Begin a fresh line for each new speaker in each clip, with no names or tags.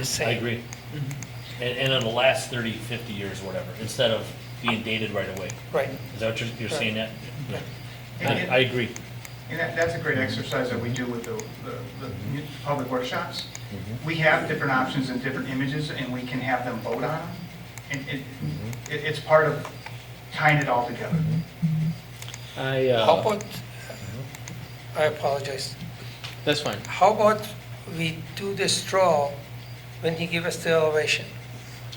I
same.
agree.
Mm-hmm.
And, and it'll last 30, 50 years, whatever, instead of being dated right away.
Right.
Is that what you're, you're saying that?
Right.
I, I agree.
And that, that's a great exercise that we do with the, the, the mu- public workshops.
Mm-hmm.
We have different options and different images, and we can have them vote on them. And it,
Mm-hmm.
it, it's part of tying it all together.
I,
How
uh,
about, I apologize,
that's fine.
how about we do the straw when he give us the elevation?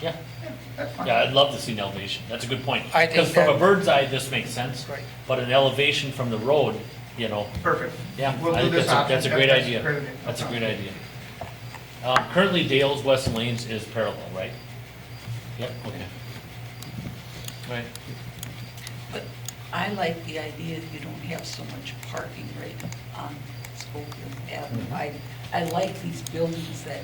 Yeah.
Yeah, That's fine.
Yeah, I'd love to see an elevation. That's a good point.
I think
Because from a
that-
bird's eye, this makes sense.
Right.
But an elevation from the road, you know,
Perfect.
yeah.
We'll
I
do
think
this
that's a-
option.
That's a great idea.
great idea. No
That's a
problem.
great idea. Um, Currently Dale's Weston Lanes is parallel, right? Yep, okay. Right.
But I like the idea that you don't have so much parking right on Spokane Avenue. I, I like these buildings that,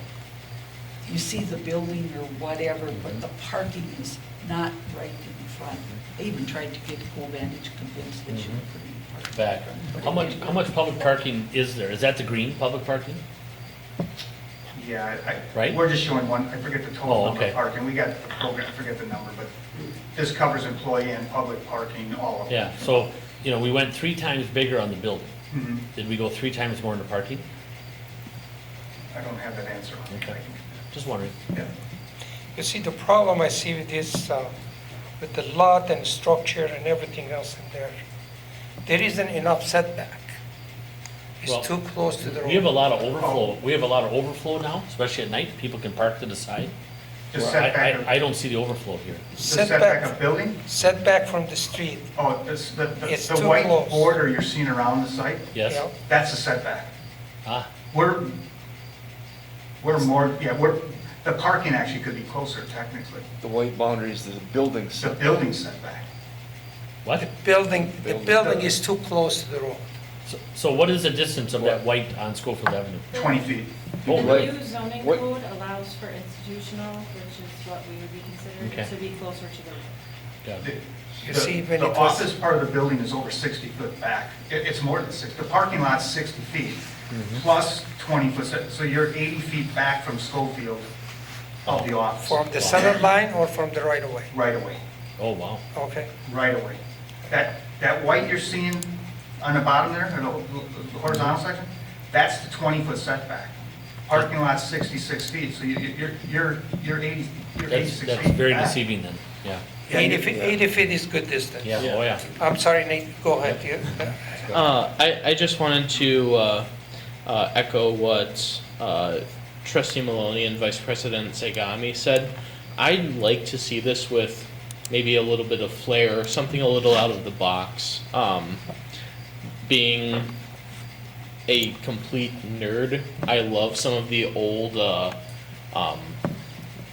you see the building or whatever, but the parking is not right in front. I even tried to get Covantage to convince that you were putting parking.
back.
But
How
it
much,
didn't.
how much public parking is there? Is that the green public parking?
Yeah, I- I,
Right?
we're just showing one, I forget the
Oh,
total number
okay.
of parking, we got the program, I forget the number, but this covers employee and public parking, all of it.
Yeah, so, you know, we went three times bigger on the building.
Mhm.
Did we go three times more into parking?
I don't have that answer. on it.
Okay. Just wondering.
Yeah.
You see, the problem I see with this, uh, with the lot and structure and everything else in there, there isn't enough setback.
Well,
It's too close to the
We have a
road.
lot of
Oh.
overflow, we have a lot of overflow now, especially at night, people can park to the side.
Just
Where I-
setback
I,
of-
I don't see the overflow here.
The setback of building?
Setback from the street,
Oh, this, the, the-
It's
the
too
white
close.
border you're seeing around the site?
Yes?
Yeah.
That's a setback.
Ah,
We're, we're more, yeah, we're, the parking actually could be closer technically.
The white boundary is the building
It's the
setback.
building setback.
what?
building, the
Building.
building is too close to the road.
So- So what is the distance of that white on Schofield Avenue?
20 feet.
Oh,
The
right.
new zoning
What-
code allows for institutional, which is what we would be
Okay.
considered to be closer to the
Got
The-
it.
You
the-
see when
The
it was-
office part of the building is over 60 foot back. It, it's more than six, the parking lot's 60 feet, plus 20 foot, set- so you're 80 feet back from Schofield of the office.
From the center line or from the right of way,
Right away,
Oh, wow.
okay?
right away. That, that white you're seeing on the bottom there, or the the horizontal section, that's the 20 foot setback. Parking lot's 66 feet, so you- you're, you're, you're 80, you're
That's,
86 feet
that's very
back.
deceiving then, yeah.
Yeah, you-
80 feet, 80 feet is good distance.
Yeah, oh, yeah.
I'm sorry, Nate, go ahead. You-
Uh, I, I just wanted to uh, uh, echo what uh, Trustee Maloney and Vice President Segami said. I'd like to see this with maybe a little bit of flair, something a little out of the box. Um, being a complete nerd, I love some of the old uh, um,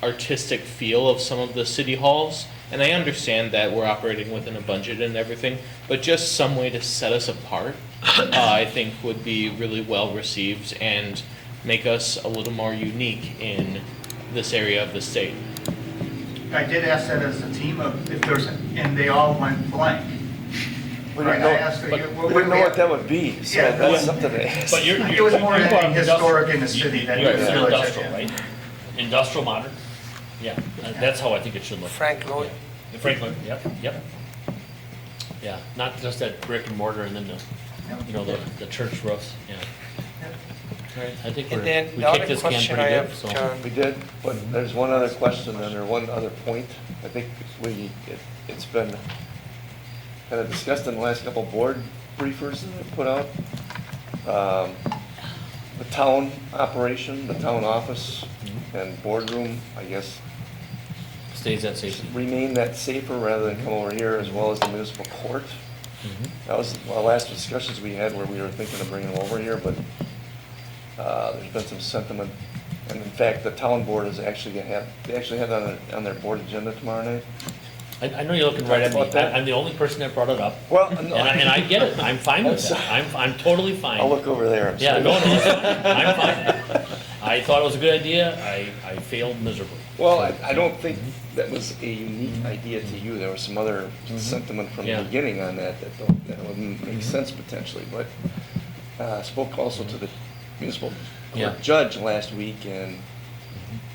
artistic feel of some of the city halls. And I understand that we're operating within a budget and everything, but just some way to set us apart, uh, I think would be really well received and make us a little more unique in this area of the state.
I did ask that as a team of, if there's, and they all went blank.
We
Right,
didn't
I
know,
asked,
but
you-
we didn't know what that would be, so
Yeah, but-
that's something to ask.
But you're, you're.
It was more
you brought up
historic in the
industrial.
city than
You- you
you
said
realize,
Industrial,
yeah.
right? Industrial modern? Yeah, uh, that's how I think it should look.
Frank Lloyd.
Yeah. Franklin, yep, yep. Yeah, not just that brick and mortar and then the, you know, the, the church roofs, yeah. I think we're,
And
we
then the
kicked
other
this can
question I
pretty good,
have, uh,
so.
John,
We did, but there's one other question and there one other point. I think we, it- it's been kind of discussed in the last couple board briefers that I put out. Um, The town operation, the town office and boardroom, I guess,
Stays at safety.
remain that safer rather than come over here as well as the municipal court.
Mm-hmm.
That was one of the last discussions we had where we were thinking of bringing them over here, but uh, there's been some sentiment. And in fact, the town board is actually gonna have, they actually have that on their- on their board agenda tomorrow night.
I, I know you're looking right at me,
About that?
I- I'm the only person that brought it up.
Well,
And I, and I
no,
get it, I'm fine with
I'm
that, I'm, I'm totally fine.
I'll look over there. I'm
Yeah,
sorry.
no, no, it's fine. I'm fine. I thought it was a good idea, I, I failed miserably.
Well, I I don't think that was a unique idea to you. There was some other sentiment from
Mm-hmm. Yeah. Mm-hmm.
the beginning on that that don't, that wouldn't make sense potentially, but uh, I spoke also to the municipal
Yeah.
court judge last week and